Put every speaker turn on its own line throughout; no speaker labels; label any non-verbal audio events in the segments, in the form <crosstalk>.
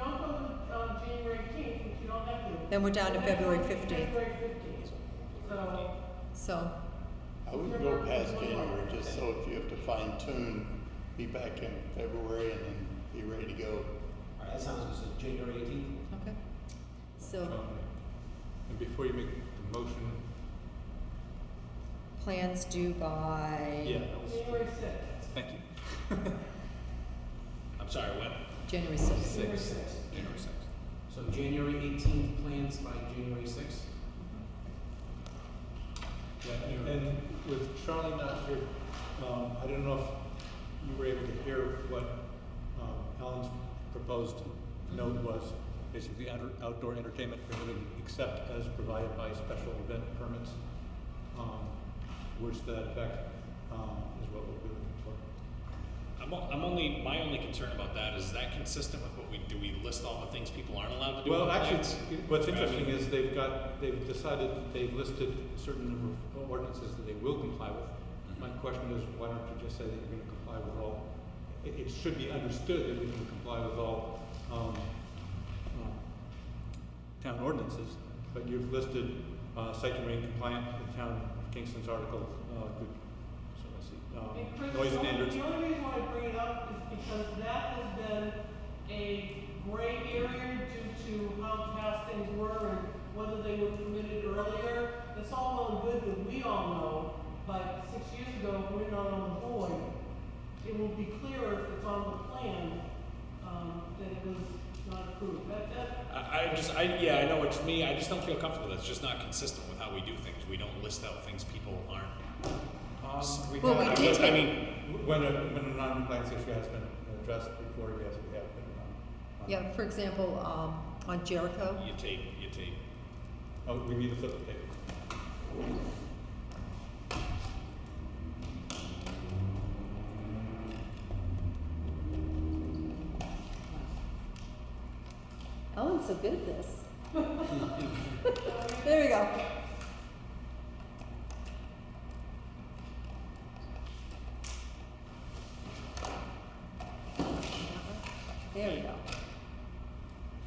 um,
Then we're down to February fifteenth,
February fifteenth. So,
so,
I wouldn't go past January, just so if you have to fine tune, be back in February and then be ready to go.
All right, that sounds good, so January eighteenth?
okay. So,
Um, And before you make the motion,
plans due by
yeah, that was,
January sixth.
thank you. I'm sorry, what?
January sixth.
January
Six.
sixth.
January sixth.
So January eighteenth, plans by January sixth?
Yeah, and with Charlie not here, um, I don't know if you were able to hear what, um, Alan's proposed note was. Basically, out- outdoor entertainment prohibited except as provided by special event permits. Um, words to that effect, um, is what we'll be looking for.
I'm, o- I'm only my only concern about that is that consistent with what we do. We list all the things people aren't allowed to do.
Well,
on
actually,
plants?
it- what's
I mean-
interesting is they've got, they've decided, that they've listed a certain number of ordinances that they will comply with.
Mm-hmm.
My question is, why don't you just say that you're gonna comply with all, it, it should be understood that we're gonna comply with all, um, um, town ordinances, but you've listed, uh, site to remain compliant with town of Kingston's article, uh, good, so let's see,
And Chris,
um, noise
the only-
standards.
The only reason why I bring it up is because that has been a gray area due to how fast things were and whether they were permitted earlier. It's all well and good that we all know, but six years ago, if we're not on the board, it will be clearer if it's on the plan, um, that it was not approved. That, that,
I, I just I yeah I know what you mean. I just don't feel comfortable. That's just not consistent with how we do things. We don't list out things people aren't.
Um,
Well, we
I,
did
I
take-
mean,
When a, when a non-compliance issue has been addressed before, yes, we have been on. on-
Yeah, for example, um, on Jericho,
you tape you tape.
Oh, we need to flip the table.
Ellen's so good at this. There we go. There we go.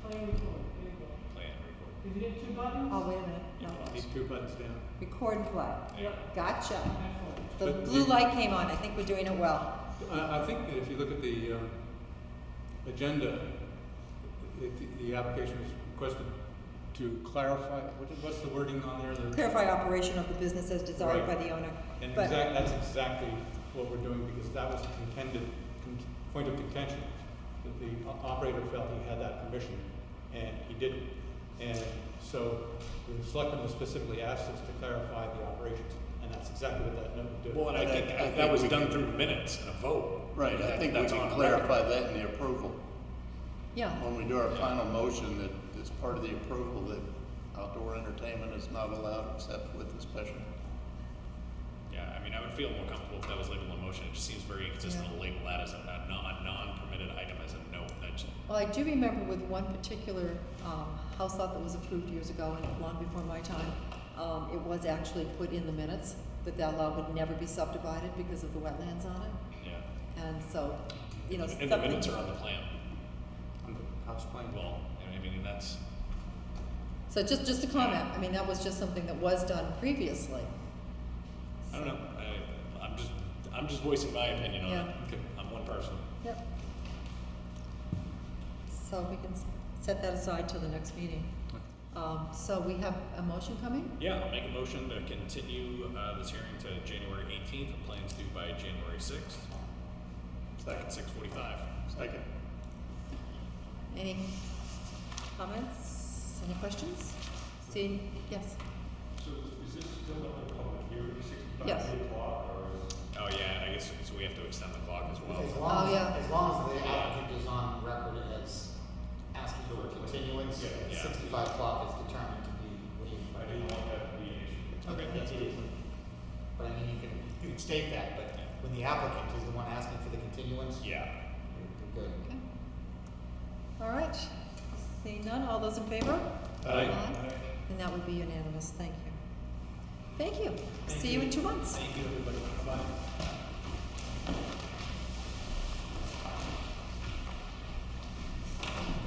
plan report, there you go.
Plan report.
Did you get two buttons?
Oh, wait a minute, no.
These two buttons down.
Record and play.
Yep,
Gotcha.
excellent.
The blue light came on, I think we're doing it well.
I, I think that if you look at the, um, agenda, it, the application was requested to clarify, what, what's the wording on there?
<laughs>
The-
Clarify operation of the business as desired by
Right.
the owner.
And
But-
exact, that's exactly what we're doing, because that was the contended, con- point of contention, that the o- operator felt he had that permission, and he didn't. And so, the selectmen was specifically asked us to clarify the operations, and that's exactly what that note would do.
Well, and I,
But I-
think,
I
that,
think
that was
we
done
can-
through minutes and a vote.
Right, I
That-
think we
that's on
can
record.
clarify that in the approval.
Yeah,
When we do our final motion, that it's part of the approval that outdoor entertainment is not allowed except with a special.
Yeah, I mean, I would feel more comfortable if that was labeled a motion. It just seems very inconsistent
Yeah.
to label that as a, a non a non-permitted item as a note. That just,
well, I do remember with one particular, um, house lot that was approved years ago and long before my time, um, it was actually put in the minutes that that lot would never be subdivided because of the wetlands on it.
yeah.
And so, you know,
and the minutes are
something,
on the plan.
On the house plan.
Well, I mean, that's
so just, just a comment, I mean, that was just something that was done previously.
I don't know. I, I'm just I'm just voicing my opinion on it.
Yeah.
Okay.
I'm one person.
Yep. So we can s- set that aside till the next meeting. Um, so we have a motion coming?
Yeah, I'll make a motion to continue uh, this hearing to January 18th. and plans due by January 6th. Second, 6:45.
Second.
Any comments, any questions? See, yes,
So is this still not a public hearing,
Yes.
o'clock,
Oh yeah, I guess so. We have to extend the clock as well.
As long
Oh,
as,
yeah.
as long as the applicant is on record as asking for a continuance,
yeah.
sixty-five o'clock is determined to be waived. I didn't want that to be an issue. Okay, that's good. But I mean, you can, you can state that, but when the applicant is the one asking for the continuance,
Yeah.
you're good.
okay. All right, seeing none, all those in favor?
Aye.
And that would be unanimous, thank you. Thank you, see you in two months.
Thank you, everybody. Bye.